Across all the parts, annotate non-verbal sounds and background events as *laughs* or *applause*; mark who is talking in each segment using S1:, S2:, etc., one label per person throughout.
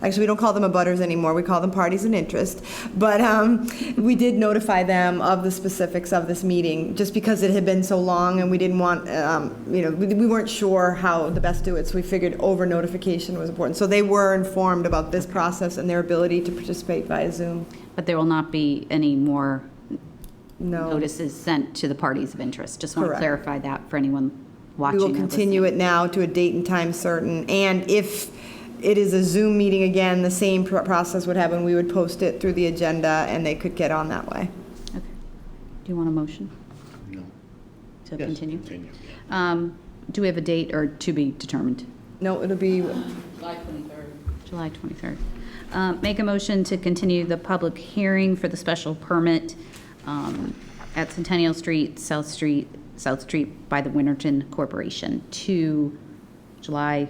S1: Actually, we don't call them abutters anymore, we call them parties in interest. But um, we did notify them of the specifics of this meeting, just because it had been so long and we didn't want, um, you know, we we weren't sure how the best to do it, so we figured over notification was important. So they were informed about this process and their ability to participate via Zoom.
S2: But there will not be any more
S1: No,
S2: notices sent to the parties of interest. Just want to
S1: Oh. Correct.
S2: clarify that for anyone
S1: we
S2: watching.
S1: will continue it now to a date and time certain. And if it is a Zoom meeting again, the same pr- process would happen. We would post it through the agenda and they could get on that way.
S2: Okay. Do you want a motion
S3: No.
S2: to
S3: Yes,
S2: continue?
S3: Continue.
S2: Um, Do we have a date or to be determined?
S1: No, it'll be
S2: July 23rd. Uh, Make a motion to continue the public hearing for the special permit um, at Centennial Street, South Street, South Street by the Winterton Corporation to July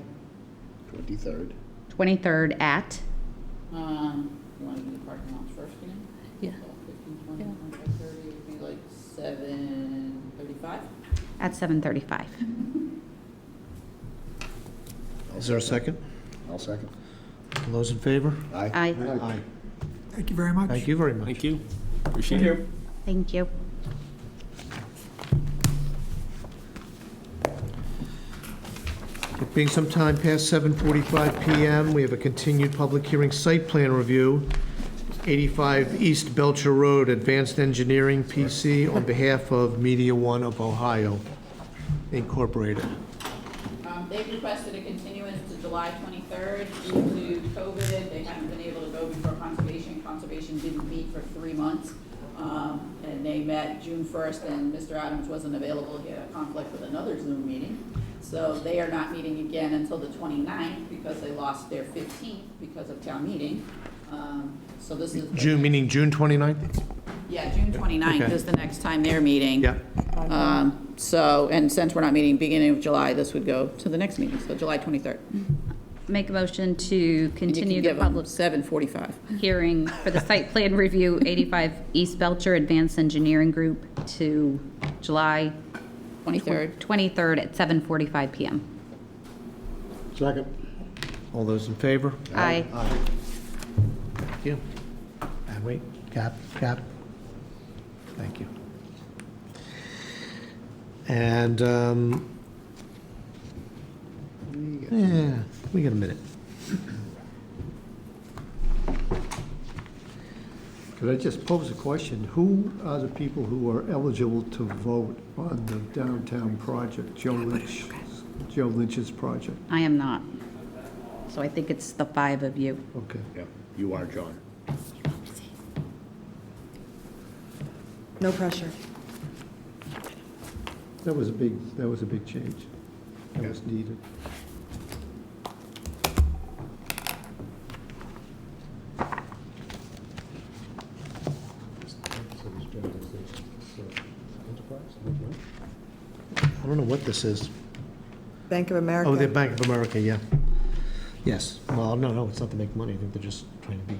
S3: 23rd.
S2: 23rd at,
S4: Um, you wanna do the parking lots first again?
S2: Yeah.
S4: Twelve, fifteen, twenty, twenty-five, thirty, it'd be like seven thirty-five?
S2: at 7:35.
S5: Is there a second?
S3: I'll second.
S5: All those in favor?
S3: Aye.
S2: Aye.
S5: Aye.
S6: Thank you very much.
S5: Thank you very much.
S7: Thank you. Appreciate it.
S2: Thank you.
S5: It being some time past 7:45 PM, we have a continued public hearing site plan review, 85 East Belcher Road, Advanced Engineering PC, on behalf of Media One of Ohio Incorporated.
S4: Um, they've requested a continuance to July twenty-third due to COVID. They haven't been able to go before conservation. Conservation didn't meet for three months. Um, and they met June first and Mr. Adams wasn't available. He had a conflict with another Zoom meeting. So they are not meeting again until the 29th because they lost their fifteenth because of town meeting. Um, so this is. the
S5: June, meaning June 29th?
S4: Yeah, June 29th
S5: Okay.
S4: is the next time they're meeting.
S5: Yeah.
S4: Um, So, and since we're not meeting beginning of July, this would go to the next meeting, so July 23rd.
S2: Make a motion to
S4: And you
S2: continue
S4: can
S2: the
S4: give them
S2: public
S4: 7:45.
S2: hearing for the site plan review, 85 East Belcher Advanced Engineering Group to July
S4: 23rd.
S2: 23rd at 7:45 PM.
S3: Second.
S5: All those in favor?
S2: Aye.
S5: Thank you. And wait, cap, cap. Thank you. And, um, yeah, we got a minute.
S8: Could I just pose a question? Who are the people who are eligible to vote on the downtown project, Joe Lynch, Joe Lynch's project?
S2: I am not. So I think it's the five of you.
S8: Okay.
S3: Yeah, you are, John.
S1: no pressure.
S8: That was a big, that was a big change. That was needed.
S5: I don't know what this is.
S1: Bank of
S5: Oh, the
S1: America.
S5: Bank of America, yeah. Yes, well, no, no, it's not to make money, I think they're just trying to be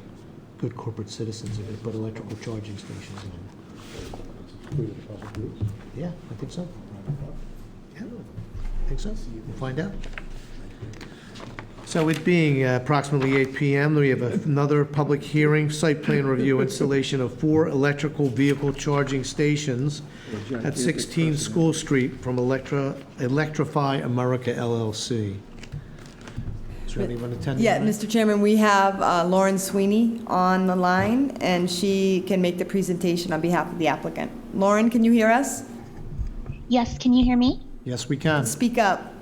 S5: good corporate citizens, they're gonna put electrical charging stations in. Yeah, I think so. Yeah, I think so, we'll find out. So it being uh, approximately 8 PM, we have another public hearing, site plan review, installation of four electrical vehicle charging stations at 16 School Street from Electra, Electrify America LLC. Is there anyone attending?
S1: Yeah,
S5: tonight?
S1: Mr. Chairman, we have uh, Lauren Sweeney on the line, and she can make the presentation on behalf of the applicant. Lauren, can you hear us?
S9: Yes, can you hear me?
S5: Yes, we can.
S1: Speak up.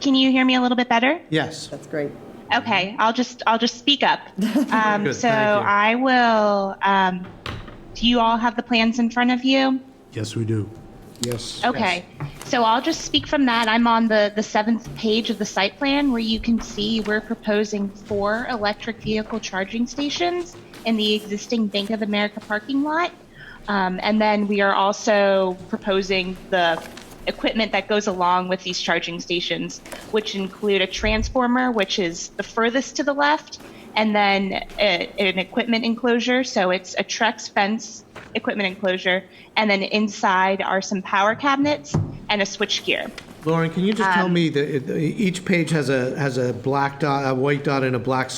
S9: Can you hear me a little bit better?
S5: Yes.
S1: That's great.
S9: Okay, I'll just I'll just speak up.
S5: *laughs*
S9: Um,
S5: Good,
S9: so
S5: thank you.
S9: I will. Um, do you all have the plans in front of you?
S5: Yes, we do.
S3: Yes.
S9: Okay. So I'll just speak from that. I'm on the, the seventh page of the site plan where you can see we're proposing four electric vehicle charging stations in the existing Bank of America parking lot. Um, and then we are also proposing the equipment that goes along with these charging stations, which include a transformer, which is the furthest to the left, and then a, an equipment enclosure. So it's a Trex fence equipment enclosure, and then inside are some power cabinets and a switchgear.
S5: Lauren, can you just tell me that it- each page has a, has a black dot, a white dot and a black